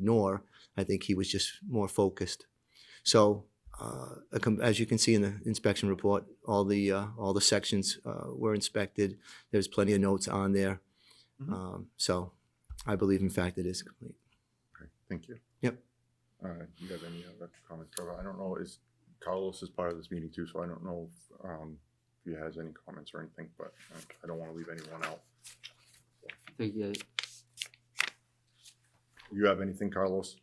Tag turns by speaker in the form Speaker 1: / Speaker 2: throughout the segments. Speaker 1: ignore. I think he was just more focused. So, uh, a com- as you can see in the inspection report, all the, uh, all the sections uh, were inspected. There's plenty of notes on there.
Speaker 2: Mhm.
Speaker 1: Um, So I believe in fact it is complete.
Speaker 2: Okay, Thank you.
Speaker 1: Yep.
Speaker 2: Uh, you have any other comments, Trevor? I don't know, is Carlos is part of this meeting too, so I don't know if, um, if he has any comments or anything, but uh, I don't wanna leave anyone out.
Speaker 3: Thank you.
Speaker 2: You have anything, Carlos?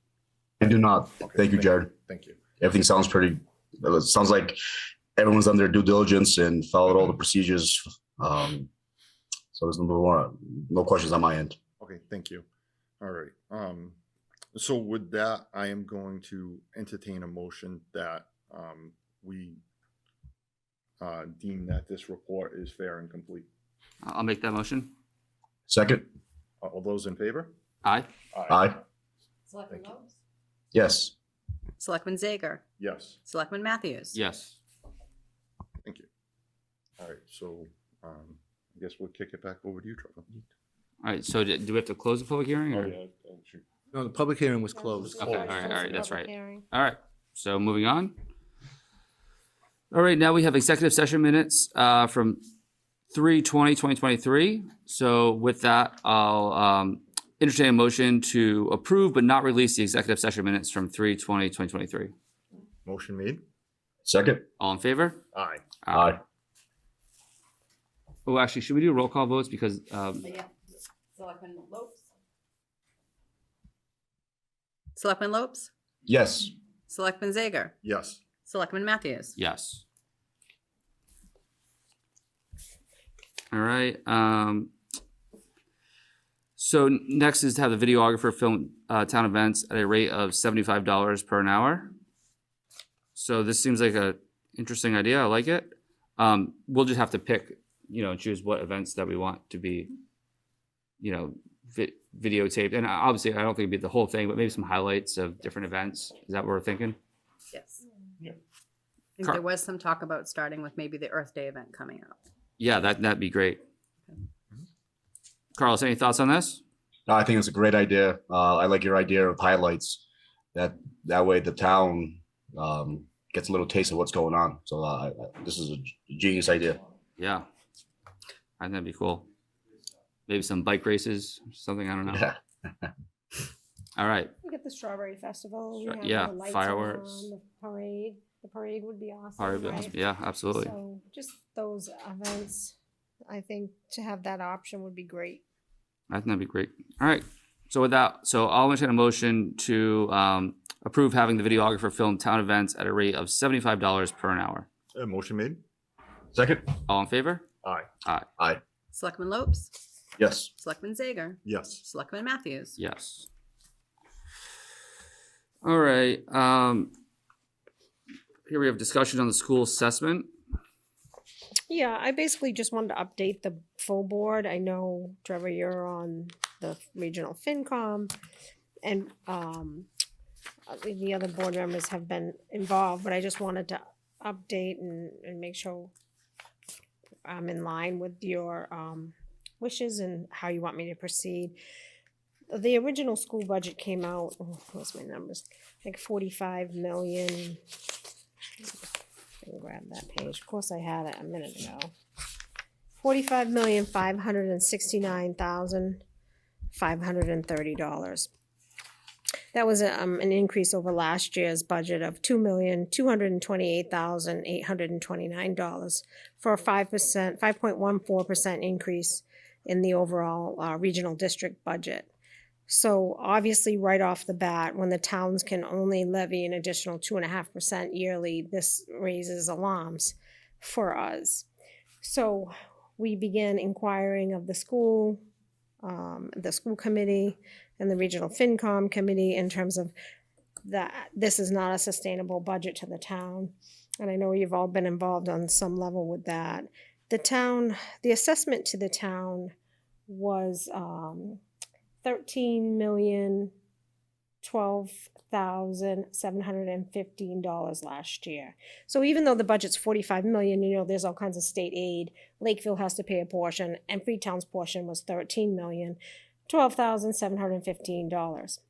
Speaker 4: I do not.
Speaker 2: Okay,
Speaker 4: Thank you, Jared.
Speaker 2: Thank you.
Speaker 4: Everything sounds pretty, it sounds like everyone's done their due diligence and followed all the procedures. Um, so there's no more, no questions on my end.
Speaker 2: Okay, thank you. All right, um, so with that, I am going to entertain a motion that, um, we uh, deem that this report is fair and complete.
Speaker 3: I- I'll make that motion.
Speaker 4: Second?
Speaker 2: All those in favor?
Speaker 3: Aye.
Speaker 4: Aye.
Speaker 5: Selectman
Speaker 2: Thank
Speaker 5: Lopes?
Speaker 4: Yes.
Speaker 5: Selectman Zager?
Speaker 2: Yes.
Speaker 5: Selectman Matthews?
Speaker 3: Yes.
Speaker 2: Thank you. All right, so um, I guess we'll kick it back over to you, Trevor.
Speaker 3: All right. So d- do we have to close the public hearing?
Speaker 2: Oh,
Speaker 3: Or?
Speaker 1: No, the public hearing was closed.
Speaker 3: Okay. All right. All right. That's right.
Speaker 6: Hearing.
Speaker 3: All right. So moving on. All right. Now we have executive session minutes uh, from 3 20, 2023. So with that, I'll um, entertain a motion to approve but not release the executive session minutes from 3 20, 2023.
Speaker 2: Motion made?
Speaker 4: Second? Uh,
Speaker 3: All in favor?
Speaker 2: Aye.
Speaker 4: Aye.
Speaker 3: Oh, actually, should we do roll call votes? Because um,
Speaker 5: Yeah. Selectman Lopes? Selectman Lopes?
Speaker 4: Yes.
Speaker 5: Selectman Zager?
Speaker 2: Yes.
Speaker 5: Selectman Matthews?
Speaker 3: Yes. All right, um. So n- next is to have the videographer film, uh, town events at a rate of seventy-five dollars per an hour. So this seems like a interesting idea, I like it. Um, we'll just have to pick, you know, choose what events that we want to be, you know, vi- videotaped, and obviously, I don't think it'd be the whole thing, but maybe some highlights of different events, is that what we're thinking?
Speaker 5: Yes.
Speaker 2: Yeah.
Speaker 5: I think
Speaker 3: Car-
Speaker 5: There was some talk about starting with maybe the Earth Day event coming up.
Speaker 3: Yeah, that, that'd be great. Carlos, any thoughts on this?
Speaker 4: No, I think it's a great idea. Uh, I like your idea of highlights. That, that way the town, um, gets a little taste of what's going on. So, uh, I- this is a genius idea.
Speaker 3: Yeah. I think that'd be cool. Maybe some bike races, something, I don't know.
Speaker 4: Yeah.
Speaker 3: All right,
Speaker 6: We get the strawberry festival. we
Speaker 3: Stra-
Speaker 6: have the
Speaker 3: yeah,
Speaker 6: lights
Speaker 3: fireworks.
Speaker 6: on, the Parade, the parade would be awesome.
Speaker 3: Harvey Mills,
Speaker 6: right?
Speaker 3: yeah, absolutely.
Speaker 6: So just those events, I think to have that option would be great.
Speaker 3: I think that'd be great. All right, so with that, so I'll entertain a motion to, um, approve having the videographer film town events at a rate of seventy-five dollars per an hour.
Speaker 2: Uh, Motion made?
Speaker 4: Second?
Speaker 3: All in favor?
Speaker 2: Aye.
Speaker 5: Selectman Lopes?
Speaker 4: Yes.
Speaker 5: Selectman Zager?
Speaker 2: Yes.
Speaker 5: Selectman Matthews?
Speaker 3: Yes. All right, um, here we have discussion on the school assessment.
Speaker 6: Yeah, I basically just wanted to update the full board. I know Trevor, you're on the regional FinCom and um uh, the- the other board members have been involved, but I just wanted to update and and make sure I'm in line with your um wishes and how you want me to proceed. The original school budget came out, oh, what's my numbers, like forty-five million. I can grab that page. Of course, I had it a minute ago. Forty-five million, five hundred and sixty-nine thousand, five hundred and thirty dollars. That was um, an increase over last year's budget of two million, two hundred and twenty-eight thousand, eight hundred and twenty-nine dollars for a five percent, five point one four percent increase in the overall uh, regional district budget. So obviously, right off the bat, when the towns can only levy an additional two and a half percent yearly, this raises alarms for us. So we began inquiring of the school, um, the school committee, and the regional FinCom committee in terms of that this is not a sustainable budget to the town. And I know you've all been involved on some level with that. The town, the assessment to the town was, um, thirteen million twelve thousand seven hundred and fifteen dollars last year. So even though the budget's forty-five million, you know, there's all kinds of state aid. Lakeville has to pay a portion, and Freetown's portion was thirteen million twelve thousand seven hundred and fifteen dollars.